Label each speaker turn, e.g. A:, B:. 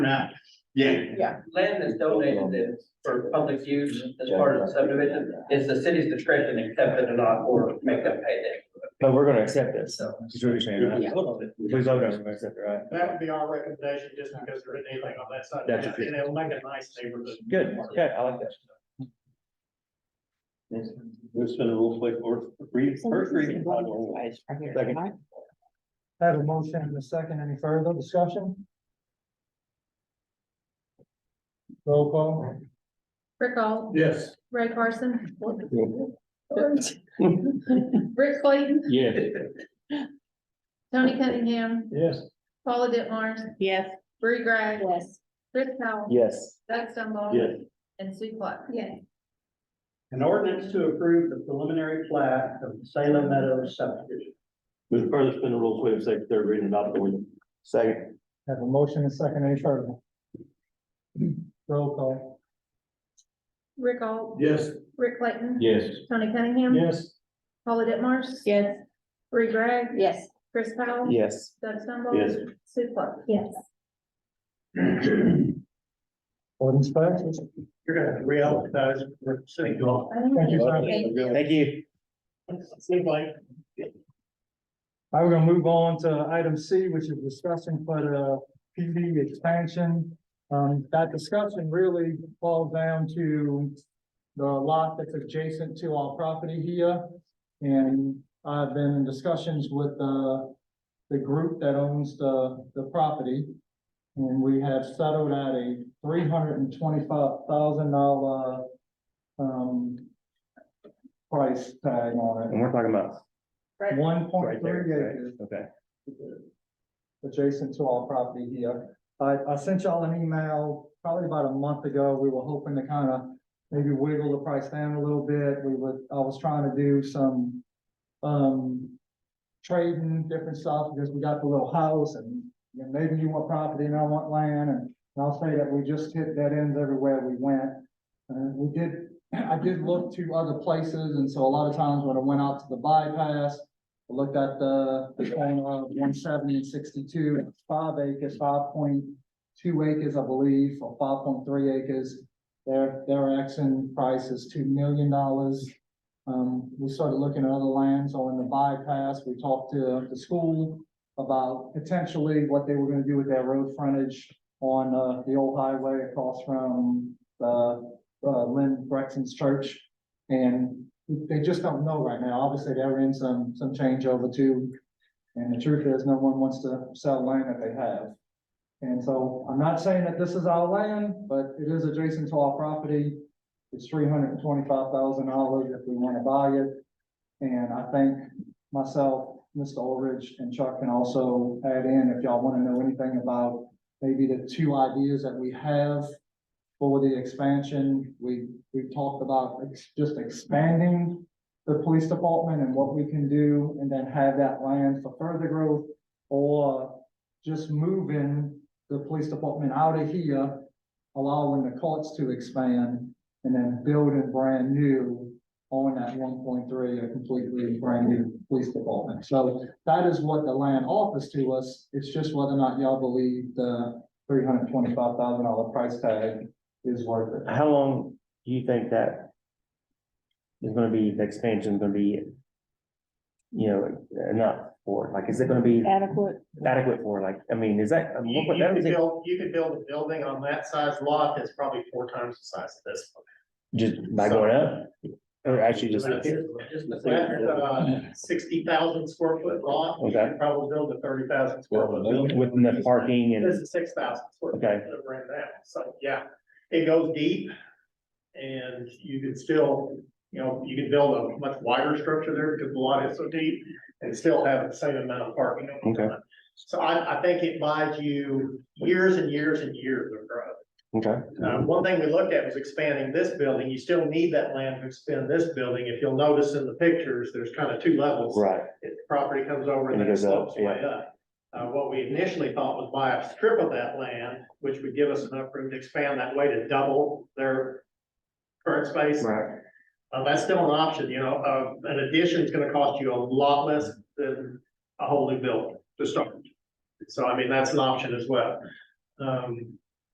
A: Right. Yeah,
B: land that's donated in for public use as part of the subdivision is the city's discretion accept it or not, or make them pay that.
C: But we're gonna accept this,
B: So,
C: is what you're saying, right? We vote on it, we accept it, right?
D: That would be our recommendation, just because there isn't anything on that side.
C: That's true.
D: And it'll make a nice neighborhood.
C: Good, okay, I like that.
A: this been a rule play for three, first reading.
C: Second.
E: Have a motion and a second. Any further discussion? Roll call.
F: Rick Hall,
A: Yes.
F: Ray Carson. Rick Clayton,
C: Yeah.
F: Tony Cunningham,
E: Yes.
F: Paula Ditmars,
G: Yes.
F: Bree Greg.
G: Yes.
F: Chris Powell.
C: Yes,
F: Doug Stumble.
A: Yes.
F: And Sue Pluck.
G: Yes.
D: An ordinance to approve the preliminary plat of the Salem Meadows subdivision.
A: Move further, spin the rules, waive second, third reading, adopt the ordinance.
C: second,
E: Have a motion and a second. Any further? Roll call.
F: Rick Hall,
A: Yes.
F: Rick Clayton.
A: Yes.
F: Tony Cunningham.
E: Yes.
F: Paula Ditmars.
G: Yes.
F: Bree Greg.
G: Yes.
F: Chris Powell.
C: yes,
F: Doug Stumble.
A: Yes.
F: Sue Pluck.
G: Yes.
E: Ordinance passes.
D: You're gonna have to re-advertise for city hall.
E: Thank you, sir.
C: thank you.
D: Seems like
E: All right, we're gonna move on to item C, which is discussion for the PV expansion. Um, that discussion really falls down to the lot that's adjacent to our property here. And I've been in discussions with, uh, the group that owns the, the property. And we have settled at a three hundred and twenty-five thousand dollar, um, price tag on
C: And we're talking about
E: it. One point
C: right
E: three
C: there,
E: acres
C: right? okay,
E: adjacent to our property here. I, I sent y'all an email probably about a month ago. We were hoping to kind of maybe wiggle the price down a little bit. We were, I was trying to do some, um, trading different stuff because we got the little house and you know, maybe you want property and I want land and and I'll say that we just hit dead ends everywhere we went. Uh, we did, I did look to other places, and so a lot of times when I went out to the bypass, I looked at the, the corner of one seventy and sixty-two, and it's five acres, five point two acres, I believe, or five point three acres. Their, their action price is two million dollars. Um, we started looking at other lands on the bypass, we talked to the school about potentially what they were gonna do with their road frontage on uh the old highway across from the uh Lynn Brexton's church. And they just don't know right now. Obviously, they're in some some changeover too. And the truth is, no one wants to sell land that they have. And so I'm not saying that this is our land, but it is adjacent to our property. It's three hundred and twenty-five thousand dollars if we want to buy it. And I think myself, Mr. Ulrich and Chuck can also add in if y'all want to know anything about maybe the two ideas that we have for the expansion. We, we've talked about ex- just expanding the police department and what we can do, and then have that land for further growth, or just moving the police department out of here, allowing the courts to expand, and then building brand new on that one point three, a completely brand new police department. So that is what the land offers to us. It's just whether or not y'all believe the three hundred twenty-five thousand dollar price tag is worth it.
C: how long do you think that is gonna be, the expansion gonna be? You know, enough for, it? like, is it gonna be
G: Adequate.
C: adequate for, like, I mean, is that? I mean,
D: You,
C: what-
D: you
C: that
D: could
C: was it.
D: build, you could build a building on that size lot that's probably four times the size of this one.
C: Just by going up, or actually just,
D: That's
C: okay,
D: that's, uh, sixty thousand square foot lot, you could probably build a thirty thousand square foot building.
C: with enough parking and,
D: This is six thousand square foot
C: Okay.
D: of rent now, so, yeah, it goes deep. And you could still, you know, you could build a much wider structure there because the lot is so deep and still have the same amount of parking.
C: Okay.
D: So I, I think it buys you years and years and years of growth.
C: okay,
D: Uh, one thing we looked at was expanding this building. You still need that land to expand this building. If you'll notice in the pictures, there's kind of two levels.
C: right,
D: It- The Property comes over and
C: And it
D: then it
C: goes up,
D: slopes way up. Uh, what we initially thought was buy a strip of that land, which would give us enough room to expand that way to double their current space.
C: right,
D: Uh, that's still an option, you know, uh, an addition is gonna cost you a lot less than a whole new building to start. So I mean, that's an option as well. Um,